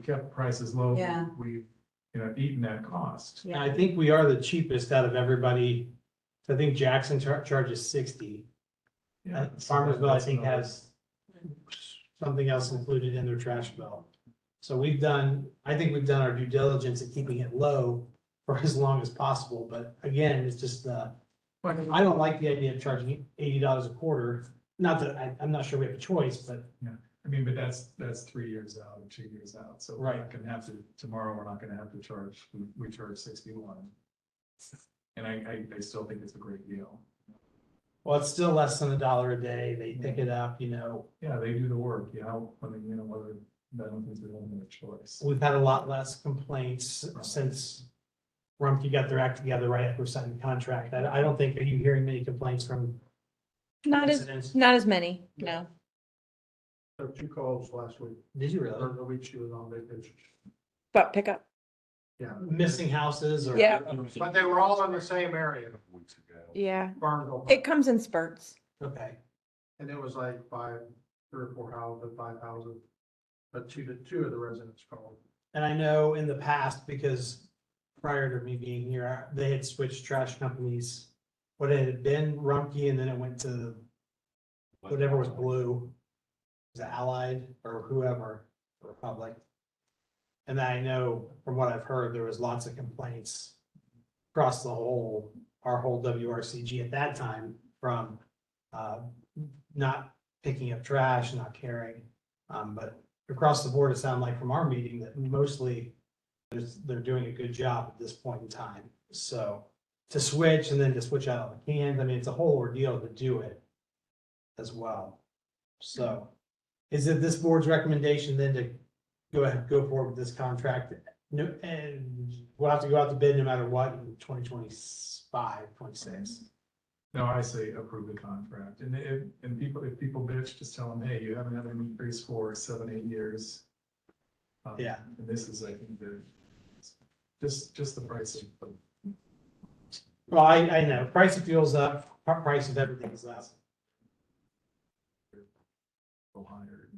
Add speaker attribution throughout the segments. Speaker 1: we kept prices low.
Speaker 2: Yeah.
Speaker 1: We've, you know, eaten that cost.
Speaker 3: And I think we are the cheapest out of everybody. I think Jackson char- charges sixty.
Speaker 1: Yeah,
Speaker 3: Uh,
Speaker 1: so
Speaker 3: Farmersville, I
Speaker 1: that's
Speaker 3: think,
Speaker 1: another-
Speaker 3: has something else included in their trash bill. So we've done, I think we've done our due diligence at keeping it low for as long as possible, but again, it's just, uh, I don't like the idea of charging eighty dollars a quarter. Not that, I, I'm not sure we have a choice, but
Speaker 1: I mean, but that's, that's three years out or two years out, so we're not gonna have to, tomorrow, we're not gonna have to charge, we, we charge sixty-one. And I, I, I still think it's a great deal.
Speaker 3: Well, it's still less than a dollar a day. They pick it up, you know,
Speaker 1: Yeah, they do the work, you know, I mean, you know, whether, I don't think they don't have a choice.
Speaker 3: we've had a lot less complaints since Rumpke got their act together right after signing the contract. I, I don't think, are you hearing many complaints from
Speaker 4: Not as,
Speaker 3: residents?
Speaker 4: not as many, no.
Speaker 5: There were two calls last week,
Speaker 3: Did you
Speaker 5: or
Speaker 3: really?
Speaker 5: the week she was on vacation.
Speaker 4: But pickup,
Speaker 5: Yeah.
Speaker 3: Missing houses or?
Speaker 4: Yeah.
Speaker 5: But they were all in the same area,
Speaker 6: weeks ago.
Speaker 4: yeah.
Speaker 5: Barnville,
Speaker 4: It comes in spurts.
Speaker 3: Okay.
Speaker 5: and it was like five, three or four houses, five houses. But two, to two of the residents called.
Speaker 3: And I know in the past, because prior to me being here, I- they had switched trash companies. What it had been Rumpke and then it went to whatever was blue. Was it Allied or whoever, Republic? And I know from what I've heard, there was lots of complaints across the whole, our whole WRCG at that time from uh, not picking up trash, not caring. Um, but across the board, it sounded like from our meeting that mostly there's, they're doing a good job at this point in time. So to switch and then to switch out all the cans, I mean, it's a whole ordeal to do it as well. So is it this board's recommendation then to go ahead, go forward with this contract? No, and we'll have to go out to bid no matter what in 2025, 26.
Speaker 1: No, I say approve the contract, and if, and people, if people bitch, just tell them, hey, you haven't had an increase for seven, eight years. Um,
Speaker 3: Yeah.
Speaker 1: And this is, I think, the, just, just the price of,
Speaker 3: Well, I, I know, price of fuel's up, pr- price of everything's up.
Speaker 1: go higher.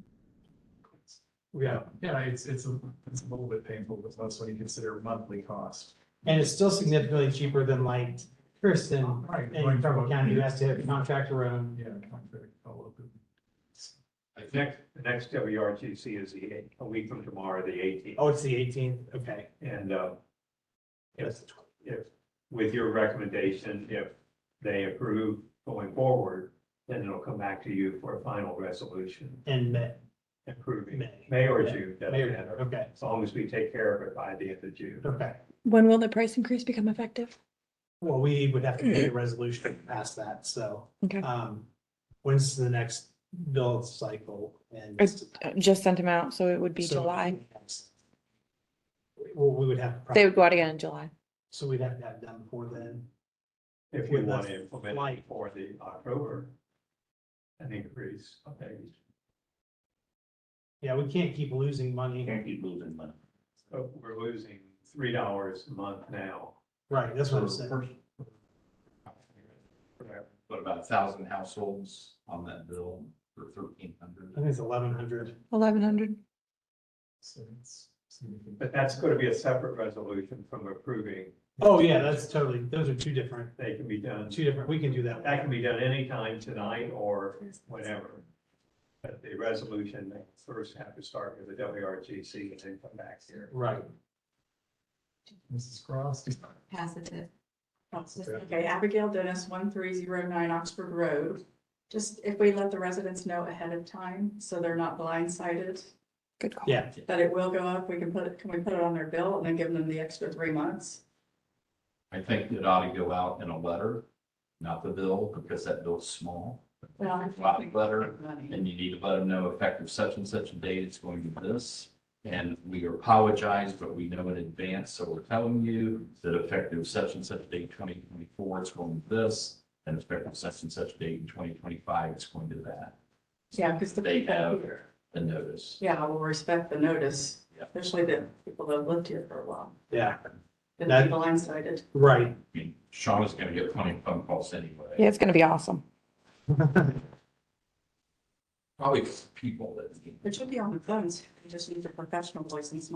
Speaker 3: Yeah.
Speaker 1: Yeah, it's, it's, a it's a little bit painful, but that's when you consider monthly cost.
Speaker 3: And it's still significantly cheaper than like Kirsten
Speaker 1: Right.
Speaker 3: in Trumbull County, who has to have a contractor own.
Speaker 1: Yeah, contract, all of it.
Speaker 6: The Next, the next WRTC is the, eight- a week from tomorrow, the eighteenth,
Speaker 3: Oh, it's the eighteenth, okay.
Speaker 6: and, uh, if,
Speaker 3: That's the 12th.
Speaker 6: if, with your recommendation, if they approve going forward, then it'll come back to you for a final resolution
Speaker 3: And May,
Speaker 6: approving,
Speaker 3: May.
Speaker 6: May or June, doesn't
Speaker 3: May or-
Speaker 6: matter,
Speaker 3: Okay,
Speaker 6: as long as we take care of it by the end of June.
Speaker 3: okay.
Speaker 4: When will the price increase become effective?
Speaker 3: Well, we would have to get a resolution past that, so,
Speaker 4: Okay,
Speaker 3: um, when's the next bill cycle and?
Speaker 4: It's- I Uh, just sent them out, so it would be
Speaker 3: So-
Speaker 4: July.
Speaker 3: Well, we would have. to-
Speaker 4: They would go out again in July.
Speaker 3: So we'd have to have it done before then.
Speaker 6: If you
Speaker 3: With
Speaker 6: want
Speaker 3: the
Speaker 6: to implement
Speaker 3: flight.
Speaker 6: it for the October, an increase, okay,
Speaker 3: Yeah, we can't keep losing money.
Speaker 7: Can't keep losing money.
Speaker 6: so we're losing three dollars a month now.
Speaker 3: Right, that's what I'm saying.
Speaker 7: But about a thousand households on that bill for thirteen
Speaker 3: I
Speaker 7: hundred.
Speaker 3: think it's eleven hundred.
Speaker 4: Eleven hundred.
Speaker 1: So it's significant.
Speaker 6: But that's going to be a separate resolution from approving.
Speaker 3: Oh, yeah, that's totally, those are two different,
Speaker 6: They can be done,
Speaker 3: two different, we can do that.
Speaker 6: that can be done anytime tonight or whenever. But the resolution, they first have to start with the WRGC and then come back here.
Speaker 3: Right.
Speaker 1: Mrs. Cross.
Speaker 2: Pass it to.
Speaker 8: Okay, Abigail Dennis, one three zero nine Oxford Road. Just if we let the residents know ahead of time, so they're not blindsided,
Speaker 4: Good call.
Speaker 3: Yeah,
Speaker 8: that it will go up, we can put it, can we put it on their bill and then give them the extra three months?
Speaker 7: I think it ought to go out in a letter, not the bill, because that bill's small.
Speaker 8: Well, I
Speaker 7: Lot
Speaker 8: think-
Speaker 7: letter,
Speaker 8: Money.
Speaker 7: and you need to let them know effective such and such a date, it's going to be this. And we apologize, but we know in advance, so we're telling you that effective such and such date twenty twenty-four, it's going to this. And effective such and such date in twenty twenty-five, it's going to that.
Speaker 8: Yeah, because the.
Speaker 7: They have the notice.
Speaker 8: Yeah, we'll respect the notice,
Speaker 7: Yeah.
Speaker 8: especially the people that have lived here for a while,
Speaker 3: yeah,
Speaker 8: that
Speaker 3: That-
Speaker 8: be blindsided.
Speaker 3: right.
Speaker 7: I mean, Sean is going to get plenty of phone calls anyway.
Speaker 4: Yeah, it's gonna be awesome.
Speaker 7: Probably people that.
Speaker 8: It should be on the phones, you just need a professional voice and smile.